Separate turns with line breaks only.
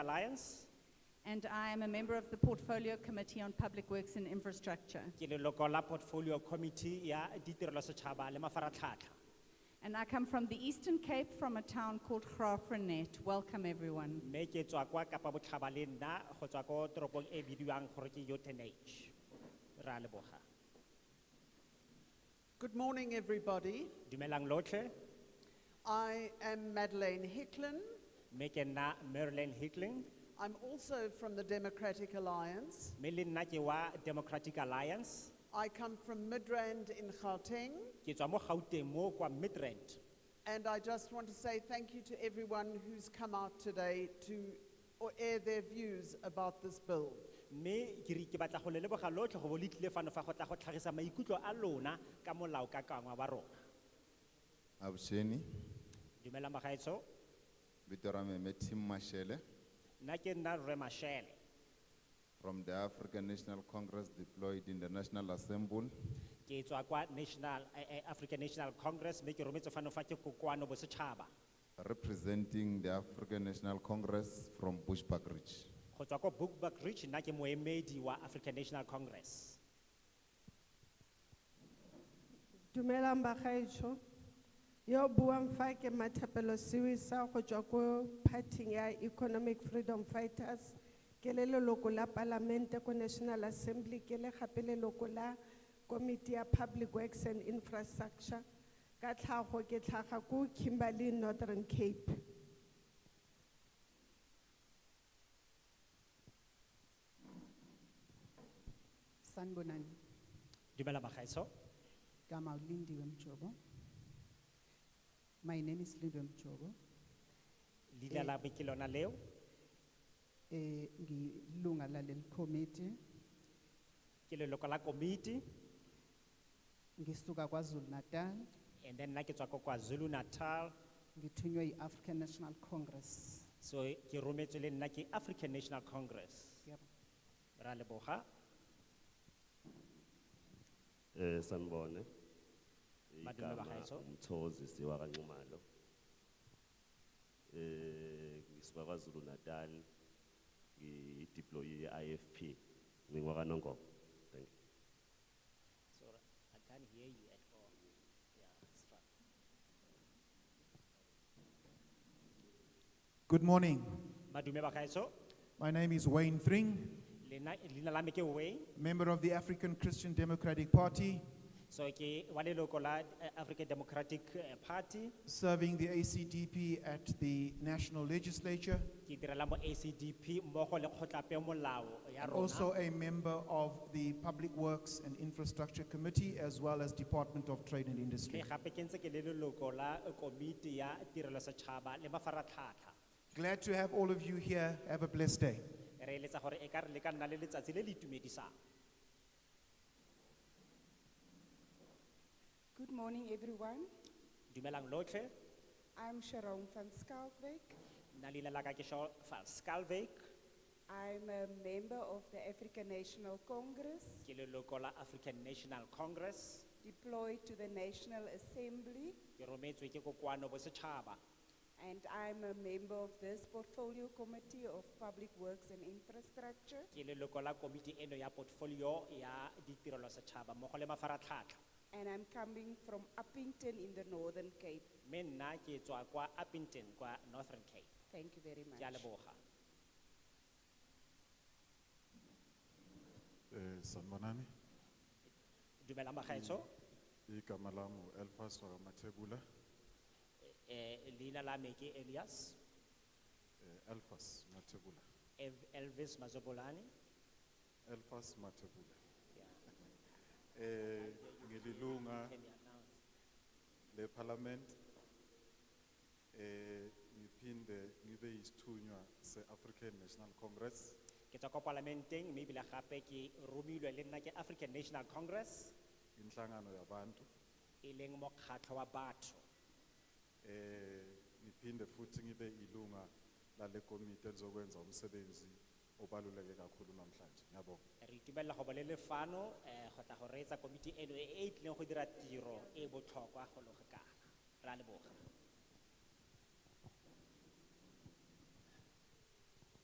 Alliance.
and I am a member of the Portfolio Committee on Public Works and Infrastructure.
Ke leloko la portfolio committee ya ditirelo setšhaba le mafaratlhatlha.
And I come from the Eastern Cape from a town called Graafrenet. Welcome, everyone.
Mme ke tswa kwa Kapa Botlhaba le nna go tswa ko toropong e bidiwang gore ke Uitenhage. Re a leboga.
Good morning, everybody.
Dumelang lotlhe,
I am Madeleine Hicklin.
mme ke nna Marilyn Hickling,
I'm also from the Democratic Alliance.
mme le nna ke wa Democratic Alliance.
I come from Midrand in Gauteng,
Ke tswa mo Gauteng mo kwa Midrand.
and I just want to say thank you to everyone who's come out today to or air their views about this bill.
Mme ke re ke batla go le leboga lotlhe go bo le tlile fano fa go tla go tlhagisa maikutlo a lona ka molaokakangwa wa rona.
Absheni,
Dumelang bagaetsho,
Bitorame Metim Mashele
nna ke nna Rre Mashele.
from the African National Congress deployed in the National Assembly.
ke tswa kwa national eh, eh, african national congress mme ke rometse fano fa ke kokoano bosetšhaba
Representing the African National Congress from Bushbuck Ridge.
go tswa ko bookback ridge nna ke moemedi wa african national congress
Dumelang bagaetsho yo buang fa ke mathapelo siwisa go tswa ko parting ya Economic Freedom Fighters ke le leloko la Palamente ko National Assembly ke le gape leloko la Committee ya Public Works and Infrastructure ka tlhago ke tlhaga ko Kimberley Northern Cape.
Sanbonani,
dumela bagaetsho
Gama Lindiwe Mjobo. My name is Lindiwe Mjobo.
leina la me ke lona leo
Eh, ngilunga laleli committee,
ke leloko la komiti
ngisuka KwaZulu Natal,
and then nna ke tswa ko kwazulu natal
ngithunywe yi-African National Congress.
so ke rometswe le nna ke african national congress
Ngiyabonga.
re a leboga
Eh sanibone.
Madume
Igama
bagaetsho.
Umthozi siwa kanxumalo. Eh ngisuka kwaZulu Natal. Ngi deploy IFP. Ngikwa kanongo. Thank you.
Good morning.
madume bagaetsho
My name is Wayne Thring,
lena- leina la me ke wayne
member of the African Christian Democratic Party,
so ke wa leloko la eh, african democratic eh, party
serving the ACDP at the National Legislature,
ke direla mo ACDP mmogo le kgotlapeomolao ya
and
rona.
also a member of the Public Works and Infrastructure Committee, as well as Department of Trade and
Mme
Industry.
gape ke ntse ke le leloko la eh, komiti ya tirelo setšhaba le mafaratlhatlha
Glad to have all of you here. Have a blessed day.
re eletsa gore e ka re le ka nna le letsatsi le le itumedisang
Good morning, everyone.
dumelang lotlhe
I'm Sharon van Skalkwyk.
nna leina la ka ke shaw van scalvak
I'm a member of the African National Congress,
ke leloko la african national congress
deployed to the National Assembly,
ke rometswe ke kokoano bosetšhaba
and I'm a member of this Portfolio Committee of Public Works and Infrastructure.
ke leloko la komiti eno ya portfolio ya ditirelo setšhaba mmogo le mafaratlhatlha
And I'm coming from Uppington in the Northern Cape.
mme nna ke tswa kwa uppington kwa northern cape
Thank you very
ke a
much.
leboga
Eh, sanibonani,
dumelang bagaetsho
igama lami u-Elphas wakwaMathebula,
Eh, leina la me ke Elias,
eh, Elphas Mathebula,
Ev- Elvis Mazobolani.
Elphas Mathebula. Eh, ngililunga leParliament, eh, ngiphinde ngibe yisithunywa se-African National Congress,
Ke tswa kwa parlamenteng, mme ebile gape ke romilwe le nna ke African National Congress,
inhlangano yabantu.
e leng mokgatlho wa batho.
Eh, ngiphinde futhi ngibe ilunga lale komiti elizokwenza umsebenzi obaluleke kakhulu namhlanje. Ngiyabonga.
Re itumelela go ba le lefano, eh, go tla go reetsa komiti eno e e tlileng go dira tiro e e botlhokwa go le go kana. Re a leboga.